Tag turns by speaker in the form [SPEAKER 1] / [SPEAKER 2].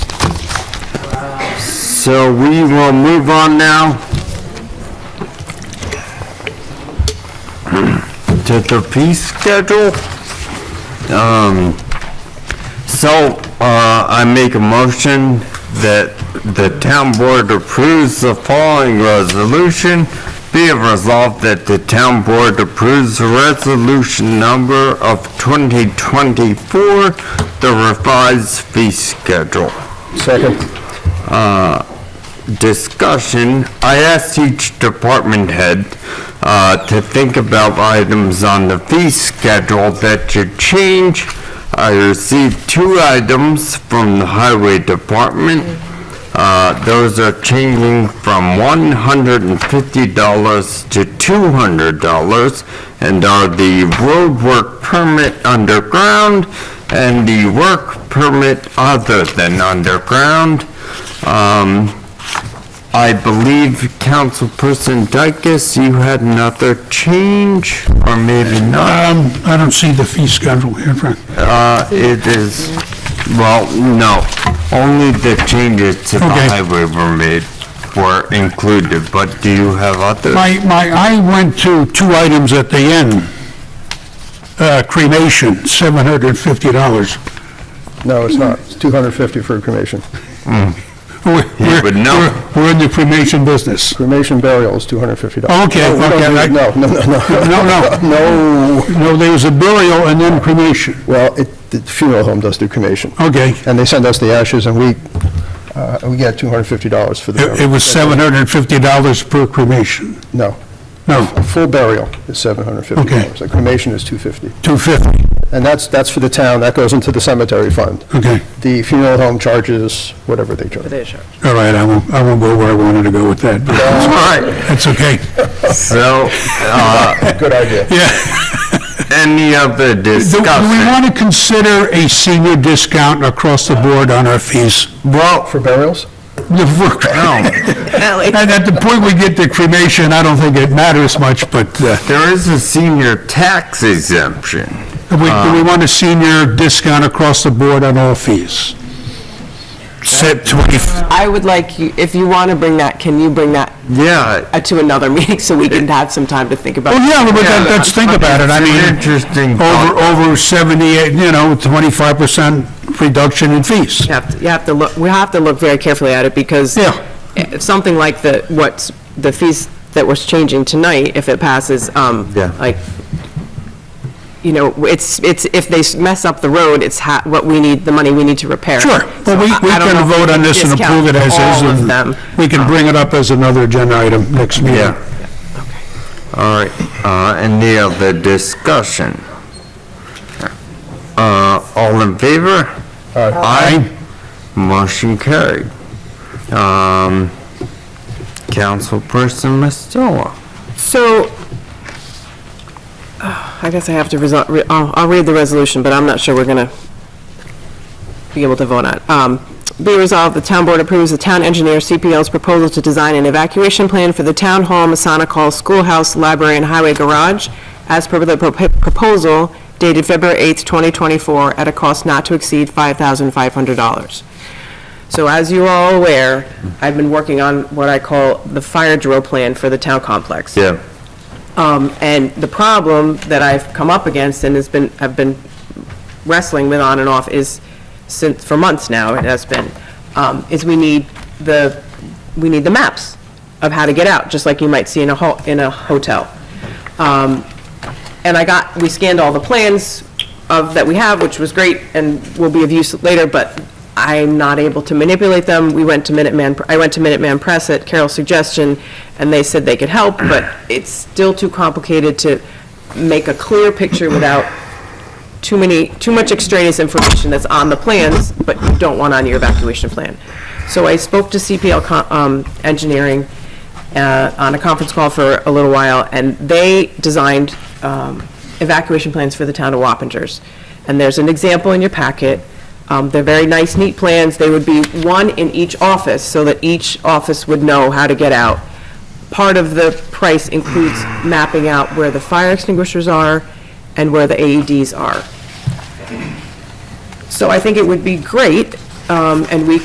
[SPEAKER 1] so we will move on now to the fee schedule. Um, so, uh, I make a motion that the town board approves the following resolution. Be it resolved that the town board approves resolution number of 2024, the revised fee schedule.
[SPEAKER 2] Second.
[SPEAKER 1] discussion, I asked each department head uh, to think about items on the fee schedule that should change. I received two items from the highway department. Uh, Those are changing from $150 to $200 and are the roadwork permit underground and the work permit other than underground. Um, I believe Councilperson Dykus, you had another change, or maybe not.
[SPEAKER 3] Um, I don't see the fee schedule here, Frank.
[SPEAKER 1] Uh, It is, well, no, only the changes to the
[SPEAKER 3] Okay.
[SPEAKER 1] highway were made, were included, but do you have others?
[SPEAKER 3] My, my, I went to two items at the end. Uh, cremation, seven hundred and fifty dollars.
[SPEAKER 2] No, it's not. It's 250 for cremation.
[SPEAKER 1] You would know.
[SPEAKER 3] We're in the cremation business.
[SPEAKER 2] Cremation burial is $250.
[SPEAKER 3] Oh, Okay,
[SPEAKER 2] No, we don't
[SPEAKER 3] okay,
[SPEAKER 2] do-
[SPEAKER 3] I-
[SPEAKER 2] No, no, no, no.
[SPEAKER 3] No, no. No. No, there's a burial and then cremation.
[SPEAKER 2] Well, it, the funeral home does do cremation,
[SPEAKER 3] Okay.
[SPEAKER 2] and they send us the ashes, and we, uh, we get $250 for the
[SPEAKER 3] It
[SPEAKER 2] burial.
[SPEAKER 3] it was seven hundred and fifty dollars per cremation.
[SPEAKER 2] No,
[SPEAKER 3] No,
[SPEAKER 2] a full burial is $750.
[SPEAKER 3] Okay.
[SPEAKER 2] A cremation is 250.
[SPEAKER 3] two fifty.
[SPEAKER 2] And that's, that's for the town, that goes into the cemetery fund.
[SPEAKER 3] Okay.
[SPEAKER 2] The funeral home charges whatever they charge.
[SPEAKER 3] All right, I won't, I won't go where I wanted to go with that, but
[SPEAKER 1] All right,
[SPEAKER 3] that's okay.
[SPEAKER 1] so, uh,
[SPEAKER 2] Good idea.
[SPEAKER 3] Yeah.
[SPEAKER 1] any other
[SPEAKER 3] Do do we
[SPEAKER 1] discussion?
[SPEAKER 3] want to consider a senior discount across the board on our fees?
[SPEAKER 1] Well,
[SPEAKER 2] For burials?
[SPEAKER 3] No. At, at the point we get to cremation, I don't think it matters much, but uh,
[SPEAKER 1] there is a senior tax exemption.
[SPEAKER 3] do we, do we want a senior discount across the board on all fees? Set twenty,
[SPEAKER 4] I would like you, if you want to bring that, can you bring that
[SPEAKER 1] Yeah,
[SPEAKER 4] uh, to another meeting so we can have some time to think about?
[SPEAKER 3] well,
[SPEAKER 4] it?
[SPEAKER 3] yeah, but that- let's think about it, I mean,
[SPEAKER 1] Interesting
[SPEAKER 3] over, over seventy-eight, you know, twenty-five percent reduction in fees.
[SPEAKER 4] You have to, you have to look, we have to look very carefully at it because
[SPEAKER 3] Yeah.
[SPEAKER 4] if something like the, what's, the fees that was changing tonight, if it passes, um,
[SPEAKER 1] Yeah.
[SPEAKER 4] like, you know, it's, it's, if they s- mess up the road, it's ha, what we need, the money we need to repair.
[SPEAKER 3] Sure, well,
[SPEAKER 4] So
[SPEAKER 3] we,
[SPEAKER 4] I-
[SPEAKER 3] we
[SPEAKER 4] I don't know
[SPEAKER 3] can
[SPEAKER 4] if
[SPEAKER 3] vote on
[SPEAKER 4] can
[SPEAKER 3] this and
[SPEAKER 4] discount
[SPEAKER 3] approve it as is.
[SPEAKER 4] All of
[SPEAKER 3] and
[SPEAKER 4] them.
[SPEAKER 3] We can bring it up as another agenda item next meeting.
[SPEAKER 1] Yeah. All right, uh, any other discussion? Uh, all in favor? Aye. Motion carried. Um, Councilperson Mistella.
[SPEAKER 4] So, I guess I have to resol, re- I'll, I'll read the resolution, but I'm not sure we're gonna be able to vote on. it. Um, be resolved, the town board approves the town engineer CPL's proposal to design an evacuation plan for the town hall, Masonic Hall, schoolhouse, library, and highway garage as per the propo- proposal dated February 8th, 2024, at a cost not to exceed $5,500. So as you are all aware, I've been working on what I call the fire drill plan for the town complex.
[SPEAKER 1] Yeah.
[SPEAKER 4] Um, And the problem that I've come up against and has been, have been wrestling with on and off is, since, for months now, it has been, um, is we need the, we need the maps of how to get out, just like you might see in a ho, in a hotel. Um, And I got, we scanned all the plans of, that we have, which was great and will be of use later, but I'm not able to manipulate them. We went to Minuteman, I went to Minuteman Press at Carol's suggestion, and they said they could help, but it's still too complicated to make a clear picture without too many, too much extraneous information that's on the plans, but you don't want on your evacuation plan. So I spoke to CPL co- um, Engineering uh, on a conference call for a little while, and they designed um, evacuation plans for the town of Wappingers. And there's an example in your packet. Um, They're very nice, neat plans. They would be one in each office, so that each office would know how to get out. Part of the price includes mapping out where the fire extinguishers are and where the E AEDs are. So I think it would be great, um, and we